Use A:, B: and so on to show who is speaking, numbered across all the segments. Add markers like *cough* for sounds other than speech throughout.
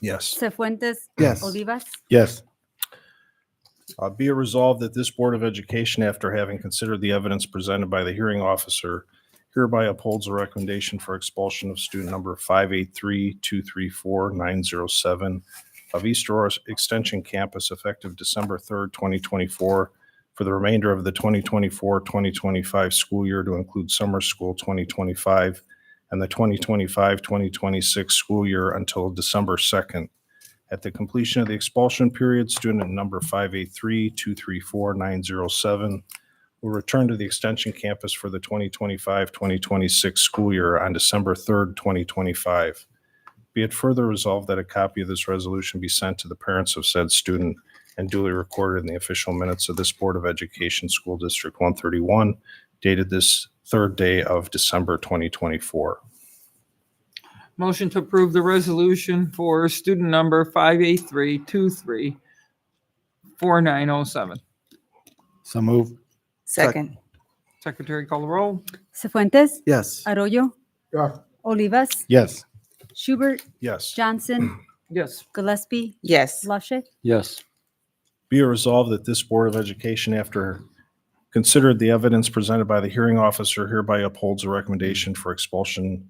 A: Yes.
B: Cefuentes.
C: Yes.
B: Olivas.
C: Yes.
A: Uh, Be it resolved that this Board of Education, after having considered the evidence presented by the hearing officer, hereby upholds the recommendation for expulsion of student number 583234907 of East Aurora Extension Campus effective December 3rd, 2024, for the remainder of the 2024-2025 school year to include summer school 2025 and the 2025-2026 school year until December 2nd, at the completion of the expulsion period, student number 583-234-907 will return to the Extension campus for the 2025-2026 school year on December 3rd, 2025. Be it further resolved that a copy of this resolution be sent to the parents of said student and duly recorded in the official minutes of this Board of Education School District 131, dated this third day of December 2024.
D: Motion to approve the resolution for student number 583234907.
C: So move.
E: Second.
D: Secretary call the roll.
B: Cefuentes.
C: Yes.
B: Arroyo. Olivas.
C: Yes.
B: Schubert.
A: Yes.
B: Johnson.
D: Yes.
B: Gillespie.
E: Yes.
B: Lache.
C: Yes.
A: Be it resolved that this Board of Education, after considered the evidence presented by the hearing officer, hereby upholds a recommendation for expulsion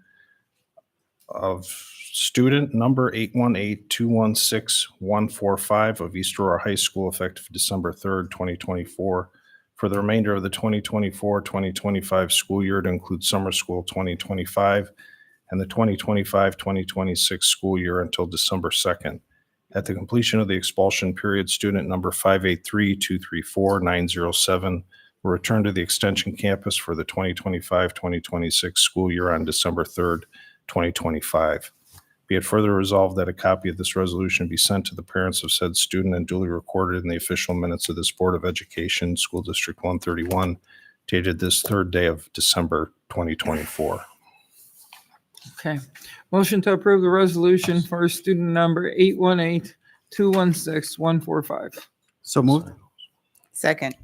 A: of student number 818-216-145 of East Aurora High School effective December 3rd, 2024, for the remainder of the 2024-2025 school year to include summer school 2025 and the 2025-2026 school year until December 2nd. At the completion of the expulsion period, student number 583-234-907 will return to the Extension campus for the 2025-2026 school year on December 3rd, 2025. Be it further resolved that a copy of this resolution be sent to the parents of said student and duly recorded in the official minutes of this Board of Education, School District 131, dated this third day of December 2024.
D: Okay. Motion to approve the resolution for student number 818216145.
C: So move.
E: Second.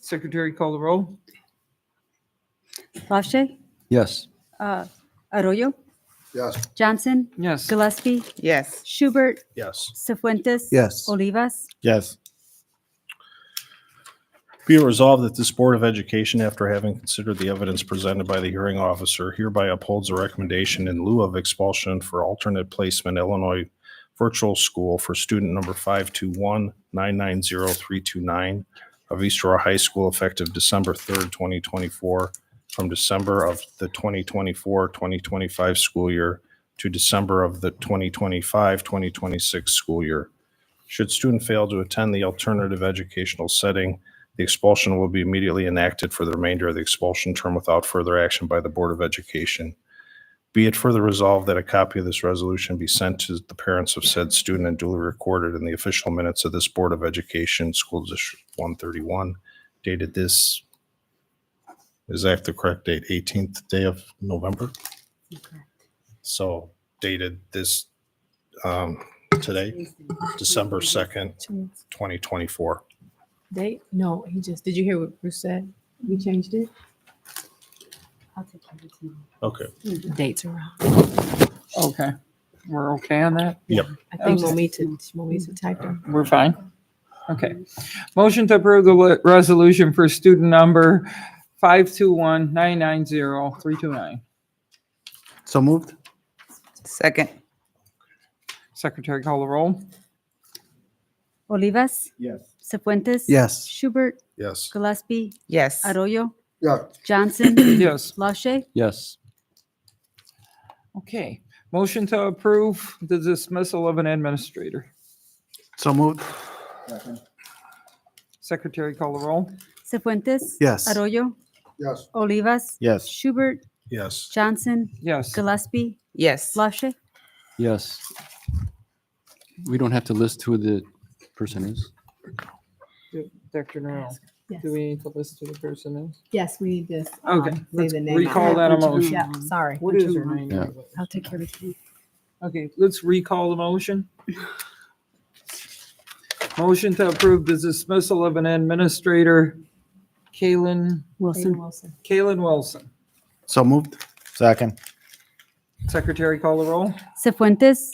D: Secretary call the roll.
B: Lache.
C: Yes.
B: uh, Arroyo.
C: Yes.
B: Johnson.
D: Yes.
B: Gillespie.
E: Yes.
B: Schubert.
A: Yes.
B: Cefuentes.
C: Yes.
B: Olivas.
C: Yes.
A: Be it resolved that this Board of Education, after having considered the evidence presented by the hearing officer, hereby upholds a recommendation in lieu of expulsion for alternate placement Illinois Virtual School for student number 521-990329 of East Aurora High School effective December 3rd, 2024, from December of the 2024-2025 school year to December of the 2025-2026 school year. Should student fail to attend the alternative educational setting, the expulsion will be immediately enacted for the remainder of the expulsion term without further action by the Board of Education. Be it further resolved that a copy of this resolution be sent to the parents of said student and duly recorded in the official minutes of this Board of Education, School District 131, dated this, is that the correct date, 18th day of November? So dated this, um, today, December 2nd,
F: Two minutes.
A: 2024.
F: They, no, he just, did you hear what Bruce said? We changed it?
A: Okay.
F: Dates are wrong.
D: Okay. We're okay on that?
F: I think Momita, Momita typed them.
D: We're fine. Okay. Motion to approve the le- resolution for student number 521990329.
C: So moved.
E: Second.
D: Secretary call the roll.
B: Olivas.
C: Yes.
B: Cefuentes.
C: Yes.
B: Schubert.
A: Yes.
B: Gillespie.
E: Yes.
B: Arroyo.
C: Yeah. *coughs*
B: Johnson.
D: Yes.
B: Lache.
C: Yes.
D: Okay. Motion to approve the dismissal of an administrator.
C: So moved.
D: Secretary call the roll.
B: Cefuentes.
C: Yes.
B: Arroyo.
C: Yes.
B: Olivas.
C: Yes.
B: Schubert.
A: Yes.
B: Johnson.
D: Yes.
B: Gillespie.
E: Yes.
B: Lache.
G: Yes. We don't have to list who the person is.
D: Dr. Norrell,
F: Yes.
D: Mm-hmm. do we need to list who the person is?
F: Yes, we need this.
D: Okay,
F: um, Say
D: let's
F: the name.
D: recall that a motion.
F: Yeah, sorry.
D: What is her name?
G: Yeah.
F: I'll take care of it.
D: Okay, let's recall the motion. Motion to approve the dismissal of an administrator, Kalen,
F: Wilson. Wilson.
D: Kalen Wilson.
C: So moved. Second.
H: Secretary call the roll?
D: Cefuentes.